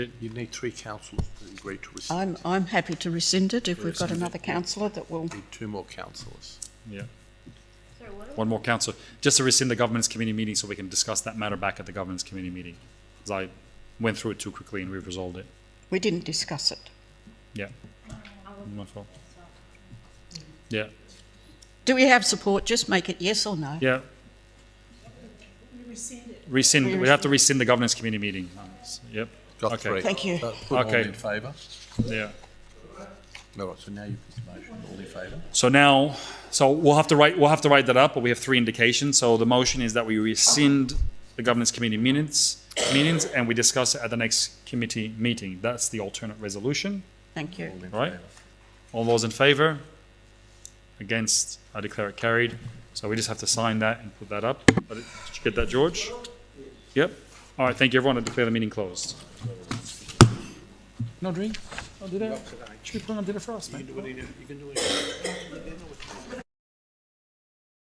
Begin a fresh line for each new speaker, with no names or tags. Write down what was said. You need three councillors to agree to
I'm,
rescind.
I'm happy to rescind it if we've got
Rescind it,
another
yeah.
councillor that will.
Need two more councillors.
Yeah. One more council, just to rescind the governance committee meeting so we can discuss that matter back at the governance committee meeting. 'Cause I went through it too quickly and we've resolved it.
We didn't discuss it.
Yeah. My fault. Yeah,
Do we have support? Just make it yes or no.
yeah. Rescind, we have to rescind the governance committee meeting. Yep,
Got
Okay.
three.
Thank you.
Uh, Put all
Okay.
in favour.
yeah.
All right, so now you put the motion, all in favour.
So now, so we'll have to write, we'll have to write that up, but we have three indications. So the motion is that we rescind the governance committee minutes, meetings, and we discuss it at the next committee meeting. That's the alternate resolution.
Thank you.
All in
Right.
favour.
All those in favour? Against? I declare it carried. So we just have to sign that and put that up. But it- Did you get that, George? Yep. All right, thank you, everyone. I declare the meeting closed. No drink? I'll do that. Should we put on dinner for us, man?
You can do it.